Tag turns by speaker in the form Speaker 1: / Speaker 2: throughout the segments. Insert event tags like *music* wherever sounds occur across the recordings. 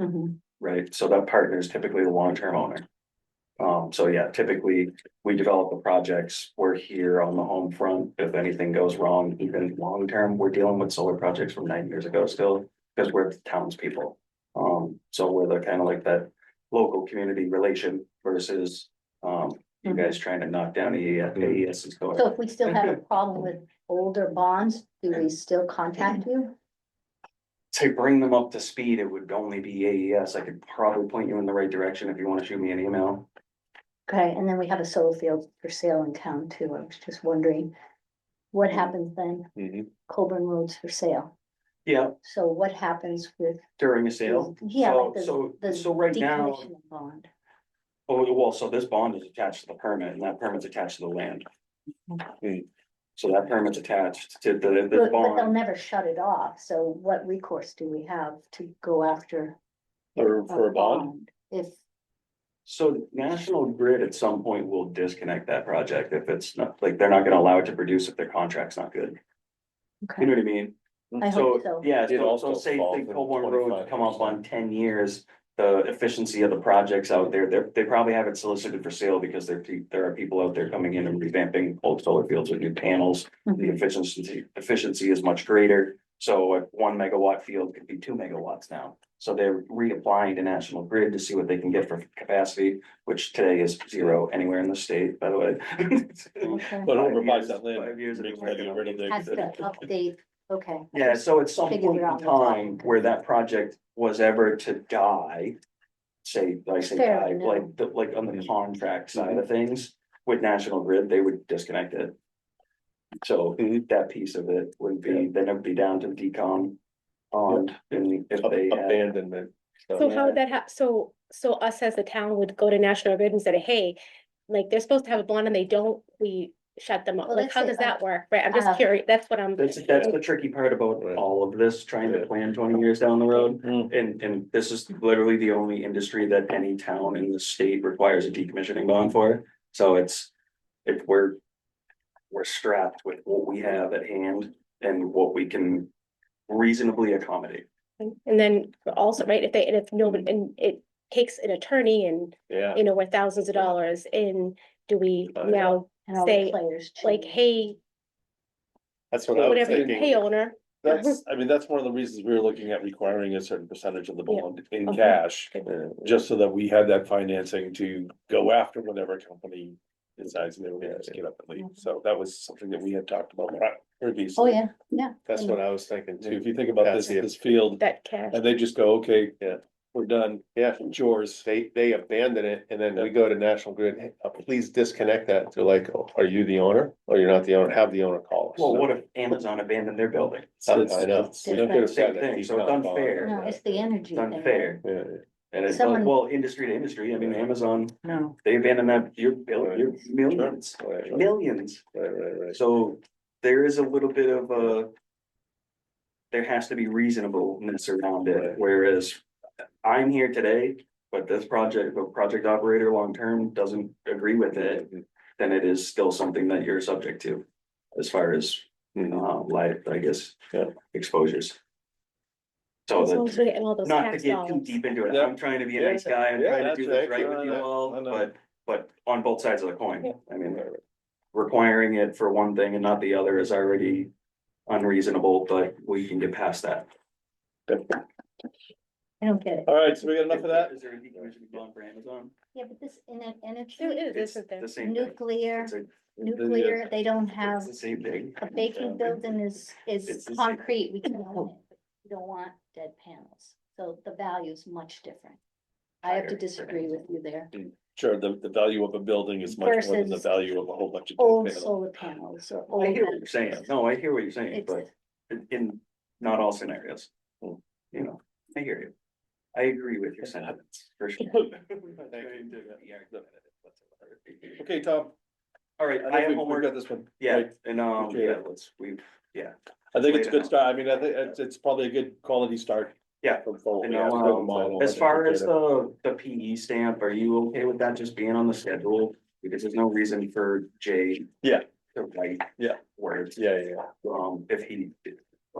Speaker 1: Mhm.
Speaker 2: right? So that partner is typically the long-term owner. Um, so yeah, typically, we develop the projects, we're here on the home front, if anything goes wrong, even long-term, we're dealing with solar projects from nine years ago still. Because we're townspeople, um, so we're the kind of like that local community relation versus, um, you guys trying to knock down E the AES is going.
Speaker 1: So if we still have a problem with older bonds, do we still contact you?
Speaker 2: to bring them up to speed, it would only be AES. I could probably point you in the right direction if you want to shoot me an email.
Speaker 1: Okay, and then we have a solar field for sale in town too. I was just wondering. What happens then? Coburn Road's for sale.
Speaker 2: Yeah,
Speaker 1: So what happens with?
Speaker 2: during a sale.
Speaker 1: Yeah,
Speaker 2: So,
Speaker 1: like the,
Speaker 2: so,
Speaker 1: the
Speaker 2: so right now,
Speaker 1: decommissioning bond.
Speaker 2: oh, well, so this bond is attached to the permit and that permit's attached to the land. Mm. So that permit's attached to the, the
Speaker 1: But, but they'll
Speaker 2: bond.
Speaker 1: never shut it off. So what recourse do we have to go after?
Speaker 3: Or for a bond,
Speaker 1: If,
Speaker 2: So National Grid at some point will disconnect that project if it's not, like, they're not gonna allow it to produce if their contract's not good.
Speaker 1: okay,
Speaker 2: You know what I mean?
Speaker 1: I hope so.
Speaker 2: Yeah,
Speaker 3: It
Speaker 2: so, so
Speaker 3: also
Speaker 2: say
Speaker 3: falls
Speaker 2: the
Speaker 3: in
Speaker 2: Coburn Road come up
Speaker 3: 25%.
Speaker 2: on ten years, the efficiency of the projects out there, they're, they probably have it solicited for sale because there, pe- there are people out there coming in and revamping old solar fields with new panels. The
Speaker 1: Mhm.
Speaker 2: efficiency, efficiency is much greater, so a one megawatt field could be two megawatts now. So they're reapplying to National Grid to see what they can get for capacity, which today is zero anywhere in the state, by
Speaker 1: *laughs*
Speaker 2: the way.
Speaker 4: Oh,
Speaker 1: Okay.
Speaker 3: but whoever
Speaker 2: Five
Speaker 3: buys
Speaker 2: years-
Speaker 3: that land.
Speaker 2: five years of
Speaker 3: they gotta get rid of their-
Speaker 1: Has to update, okay.
Speaker 2: Yeah, so at some
Speaker 1: Figure
Speaker 2: point
Speaker 1: it
Speaker 2: in
Speaker 1: out in
Speaker 2: time
Speaker 1: time.
Speaker 2: where that project was ever to die. Say, I say
Speaker 1: Fair
Speaker 2: die,
Speaker 1: enough.
Speaker 2: like, the- like on the contract side of things with National Grid, they would disconnect it. So
Speaker 3: Mhm.
Speaker 2: that piece of it would be, then it'd be down to decom. On, and if
Speaker 3: Ab-
Speaker 2: they had,
Speaker 3: Abandonment.
Speaker 4: So how would that hap, so, so us as a town would go to National Grid and say, hey, like, they're supposed to have a bond and they don't, we shut them up,
Speaker 1: Well,
Speaker 4: like,
Speaker 1: let's
Speaker 4: how
Speaker 1: say,
Speaker 4: does
Speaker 1: uh,
Speaker 4: that work, right, I'm
Speaker 1: uh,
Speaker 4: just curious, that's what I'm.
Speaker 2: that's, that's the tricky part about
Speaker 3: Right.
Speaker 2: all of this, trying to
Speaker 3: Yeah.
Speaker 2: plan twenty years down the road.
Speaker 3: Mm.
Speaker 2: And, and this is literally the only industry that any town in the state requires a decommissioning bond for, so it's, if we're. We're strapped with what we have at hand and what we can reasonably accommodate.
Speaker 4: And then also, right, if they, and if no, and it takes an attorney and,
Speaker 3: Yeah,
Speaker 4: you know, we're thousands of dollars in, do we
Speaker 3: Uh,
Speaker 4: now
Speaker 1: And all the
Speaker 4: Say,
Speaker 1: players.
Speaker 4: like,
Speaker 1: change.
Speaker 4: hey,
Speaker 3: that's what I was
Speaker 4: whatever you pay
Speaker 3: thinking.
Speaker 4: owner, *laughs*
Speaker 3: That's, I mean, that's one of the reasons we were looking at requiring a certain percentage of the
Speaker 4: Yeah.
Speaker 3: bond in
Speaker 4: Okay.
Speaker 3: cash.
Speaker 4: Good.
Speaker 3: Just so that we had that financing to go after whatever company decides they were gonna just get up and
Speaker 4: Mm-hmm.
Speaker 3: leave. So that was something that we had talked about
Speaker 1: Oh,
Speaker 3: previously.
Speaker 1: yeah, yeah.
Speaker 5: That's what I was thinking
Speaker 3: Too, If
Speaker 5: too.
Speaker 3: you think about this,
Speaker 5: That's it.
Speaker 3: this field,
Speaker 4: that cash,
Speaker 3: and they just go, okay,
Speaker 5: Yeah.
Speaker 3: we're done,
Speaker 5: Yeah,
Speaker 3: yours.
Speaker 5: they, they abandon it and then we go to National Grid, "Hey, uh, please disconnect that. They're like, "Oh, are you the owner? Or you're not the owner? Have the owner call us.
Speaker 2: Well, what if Amazon abandoned their building?
Speaker 5: I know. We
Speaker 1: different.
Speaker 5: could have
Speaker 2: Same
Speaker 5: said that
Speaker 2: thing, so it's
Speaker 5: decom bond.
Speaker 2: unfair.
Speaker 1: No, it's the energy
Speaker 2: It's
Speaker 1: thing.
Speaker 2: unfair,
Speaker 5: Yeah,
Speaker 2: and it's
Speaker 1: Someone-
Speaker 2: like, well, industry to industry, I mean, Amazon,
Speaker 1: No.
Speaker 2: they abandoned that, you're, bill- you're millions,
Speaker 5: yeah, right, right,
Speaker 2: millions.
Speaker 5: right, right, right.
Speaker 2: So there is a little bit of a. There has to be reasonableness around it,
Speaker 5: Right.
Speaker 2: whereas I'm here today, but this project, the project operator long term doesn't agree with it. Then it is still something that you're subject to as far as,
Speaker 5: Mhm.
Speaker 2: uh, life, I guess,
Speaker 5: Yeah.
Speaker 2: exposures. So
Speaker 4: as long
Speaker 2: that,
Speaker 4: as we're getting all those
Speaker 2: oh, not to
Speaker 4: tax
Speaker 2: get too
Speaker 4: dollars.
Speaker 2: deep into it,
Speaker 3: Yeah.
Speaker 2: I'm trying to be a
Speaker 5: Yeah.
Speaker 2: nice guy, I'm
Speaker 5: Yeah,
Speaker 2: trying to
Speaker 5: that's
Speaker 2: do this
Speaker 5: right.
Speaker 2: right with
Speaker 5: No,
Speaker 2: you
Speaker 5: no,
Speaker 2: all,
Speaker 5: no, no.
Speaker 2: but, but on both sides of the
Speaker 4: Yeah.
Speaker 2: coin, I mean
Speaker 5: Right, right.
Speaker 2: requiring it for one thing and not the other is already unreasonable, but we can get past that.
Speaker 1: I don't get it.
Speaker 3: All right, so we got enough of that?
Speaker 2: Is there a decommissioning bond for Amazon?
Speaker 1: Yeah, but this in an
Speaker 4: There
Speaker 1: energy,
Speaker 4: is,
Speaker 2: It's
Speaker 4: isn't there?
Speaker 2: The same thing.
Speaker 1: nuclear,
Speaker 2: It's a-
Speaker 1: nuclear, they don't have,
Speaker 2: It's the same thing.
Speaker 1: a baking building is,
Speaker 2: It's
Speaker 1: is
Speaker 2: the same.
Speaker 1: concrete, *laughs* we can own it. but We don't want dead panels, so the value is much different. I have to
Speaker 2: Higher.
Speaker 1: disagree with you there.
Speaker 3: Sure, the, the value of a building is much more than the
Speaker 1: Versus
Speaker 3: value of a whole bunch of.
Speaker 1: Old
Speaker 3: different *laughs*
Speaker 1: solar panels or
Speaker 2: I
Speaker 1: old.
Speaker 2: hear what you're saying. No, I hear what you're saying,
Speaker 1: It's-
Speaker 2: but in- in not all scenarios.
Speaker 3: Hmm.
Speaker 2: You know, I hear you. I agree with your sentiments, for
Speaker 1: *laughs*
Speaker 2: sure.
Speaker 3: panels. Okay, Tom,
Speaker 2: All right,
Speaker 3: I
Speaker 2: I
Speaker 3: think
Speaker 2: have
Speaker 3: we- we
Speaker 2: homework.
Speaker 3: got this one.
Speaker 2: Yeah,
Speaker 3: Right.
Speaker 2: and um,
Speaker 3: Okay.
Speaker 2: yeah, let's, we've,
Speaker 3: I think it's
Speaker 2: Later.
Speaker 3: a good start. I mean, I think it's, it's probably a good quality start.
Speaker 2: Yeah.
Speaker 3: From forward.
Speaker 2: And
Speaker 3: We have to
Speaker 2: now,
Speaker 3: build a
Speaker 2: um,
Speaker 3: model
Speaker 2: As
Speaker 3: that
Speaker 2: far
Speaker 3: we
Speaker 2: as
Speaker 3: did.
Speaker 2: the, the PE stamp, are you okay with that just being on the schedule? Because there's no reason for Jay.
Speaker 3: Yeah.
Speaker 2: To write.
Speaker 3: Yeah.
Speaker 2: Words,
Speaker 3: Yeah, yeah, yeah.
Speaker 2: um, if he. if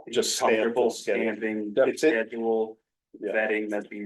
Speaker 2: he's
Speaker 3: Just stamp the
Speaker 2: Comfortable
Speaker 3: schedule.
Speaker 2: stamping,
Speaker 3: Yep.
Speaker 2: schedule,
Speaker 3: Yeah.
Speaker 2: vetting that the